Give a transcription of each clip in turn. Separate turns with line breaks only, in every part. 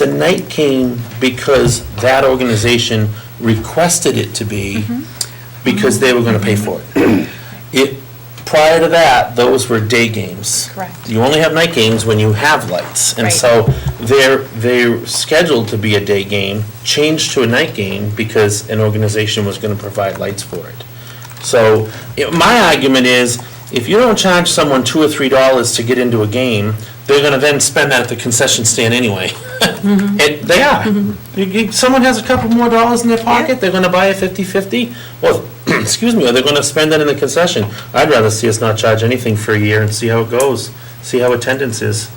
The night came because that organization requested it to be,
Mm-hmm.
because they were gonna pay for it. It, prior to that, those were day games.
Correct.
You only have night games when you have lights. And
Right.
so they're, they're scheduled to be a day game, changed to a night game because an organization was gonna provide lights for it. So, you know, my argument is, if you don't charge someone two or three dollars to get into a game, they're gonna then spend that at the concession stand anyway. And they are. You- you- Someone has a couple more dollars in their pocket, they're gonna buy a fifty-fifty, or, excuse me, or they're gonna spend that in the concession. I'd rather see us not charge anything for a year and see how it goes, see how attendance is.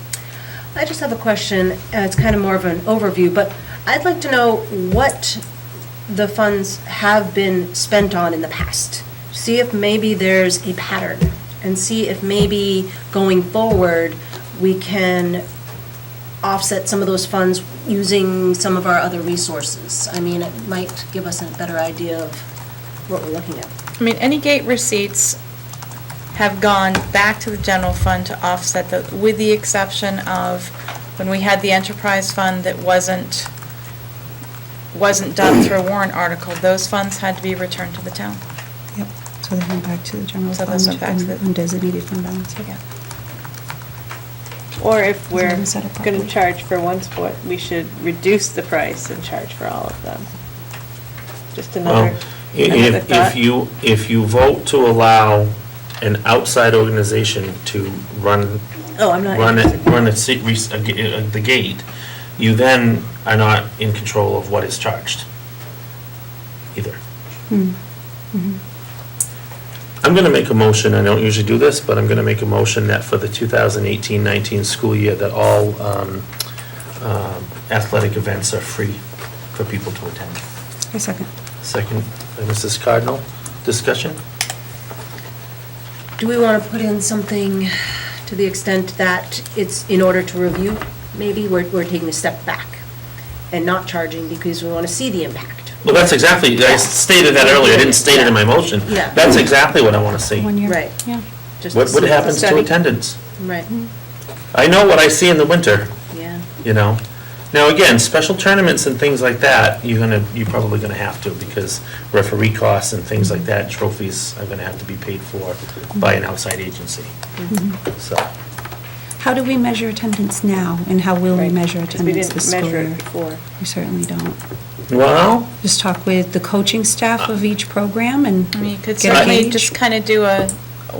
I just have a question, and it's kind of more of an overview, but I'd like to know what the funds have been spent on in the past. See if maybe there's a pattern, and see if maybe going forward, we can offset some of those funds using some of our other resources. I mean, it might give us a better idea of what we're looking at.
I mean, any gate receipts have gone back to the general fund to offset the, with the exception of when we had the enterprise fund that wasn't, wasn't done through a warrant article, those funds had to be returned to the town.
Yep, so they went back to the general
So
fund
those went back to the-
and undesignated fund balance.
Yeah.
Or if we're
Is that a problem?
going to charge for one sport, we should reduce the price and charge for all of them. Just another,
Well, i-
another
If, if
thought.
you, if you vote to allow an outside organization to run,
Oh, I'm not
run it,
interested.
run it, se- re- a ga- uh, the gate, you then are not in control of what is charged either.
Hmm.
I'm going to make a motion, I don't usually do this, but I'm going to make a motion that for the 2018-19 school year, that all um, um, athletic events are free for people to attend.
A second.
Second by Mrs. Cardinal. Discussion?
Do we want to put in something to the extent that it's in order to review? Maybe we're, we're taking a step back and not charging because we want to see the impact.
Well, that's exactly, I stated that earlier, I didn't state it in my motion.
Yeah.
That's exactly what I want to see.
One year.
Right.
Yeah.
Just
What,
to
what
see-
happens to
Study.
attendance?
Right,
I know what I see in the winter,
yeah.
you know? Now, again, special tournaments and things like that, you're gonna, you're probably gonna have to, because referee costs and things like that, trophies are gonna have to be paid for by an outside agency.
Mm-hmm.
So,
How do we measure attendance now, and how will we
Right,
measure
'cause we
attendance
didn't
this school
measure
year?
it before.
We certainly don't.
well,
Just talk with the coaching staff of each program and
I mean, you could
get a
certainly
gauge.
just kind of do a,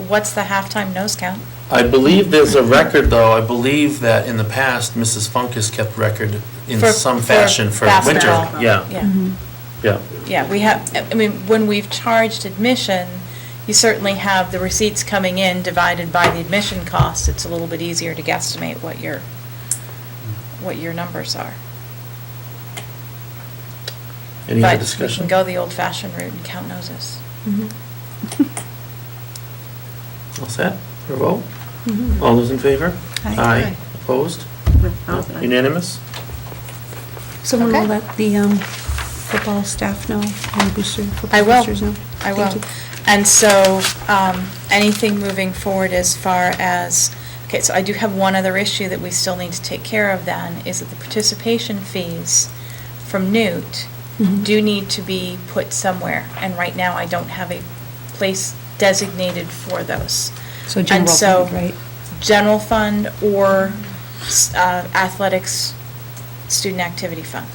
what's the halftime nose count?
I believe there's a record, though, I believe that in the past, Mrs. Funk has kept record in
for-
some fashion for winter.
basketball.
Yeah,
Yeah.
yeah.
Yeah, we have, I mean, when we've charged admission, you certainly have the receipts coming in divided by the admission cost. It's a little bit easier to guesstimate what your, what your numbers are.
Any other discussion?
But we can go the old-fashioned route and count noses.
All set? Your vote?
Mm-hmm.
All those in favor?
Aye.
Aye. Opposed? Unanimous?
Someone will
Okay.
let the um, football staff know, and booster,
I
football
will,
boosters know.
I
Thank
will.
you.
And so, um, anything moving forward as far as, okay, so I do have one other issue that we still need to take care of then, is that the participation fees from Newt
Mm-hmm.
do need to be put somewhere, and right now I don't have a place designated for those.
So
And
general
so-
fund, right?
General fund or s- uh, athletics student activity fund.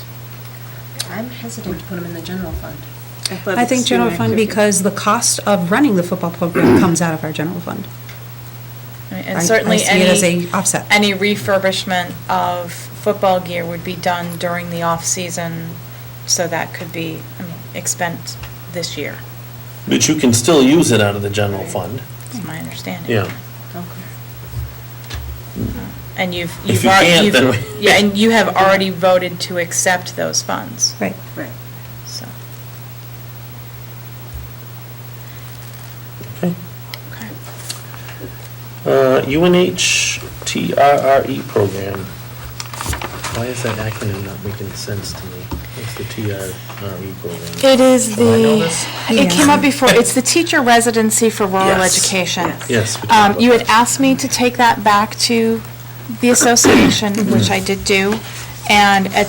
I'm hesitant to put them in the general fund.
I think general fund because the cost of running the football program comes out of our general fund.
I mean,
I-
And certainly
I see
any.
it as a offset.
Any refurbishment of football gear would be done during the off-season, so that could be, I mean, expense this year,
But you can still use it out of the general fund.
is my understanding.
Yeah.
And you've,
If
you've,
you
al-
can't, then
you've,
we-
yeah, and you have already voted to accept those funds,
Right.
Right.
so.
Okay.
okay.
Uh, UNH TRRE E program. Why is that acronym not making sense to me? What's the TRRE program?
It is
Oh,
Do I know this?
the, it came up before, it's the teacher residency for rural
Yes.
education.
Yes. we talked
Um,
about
You had
that.
asked me to take that back to the association, which I did do, And at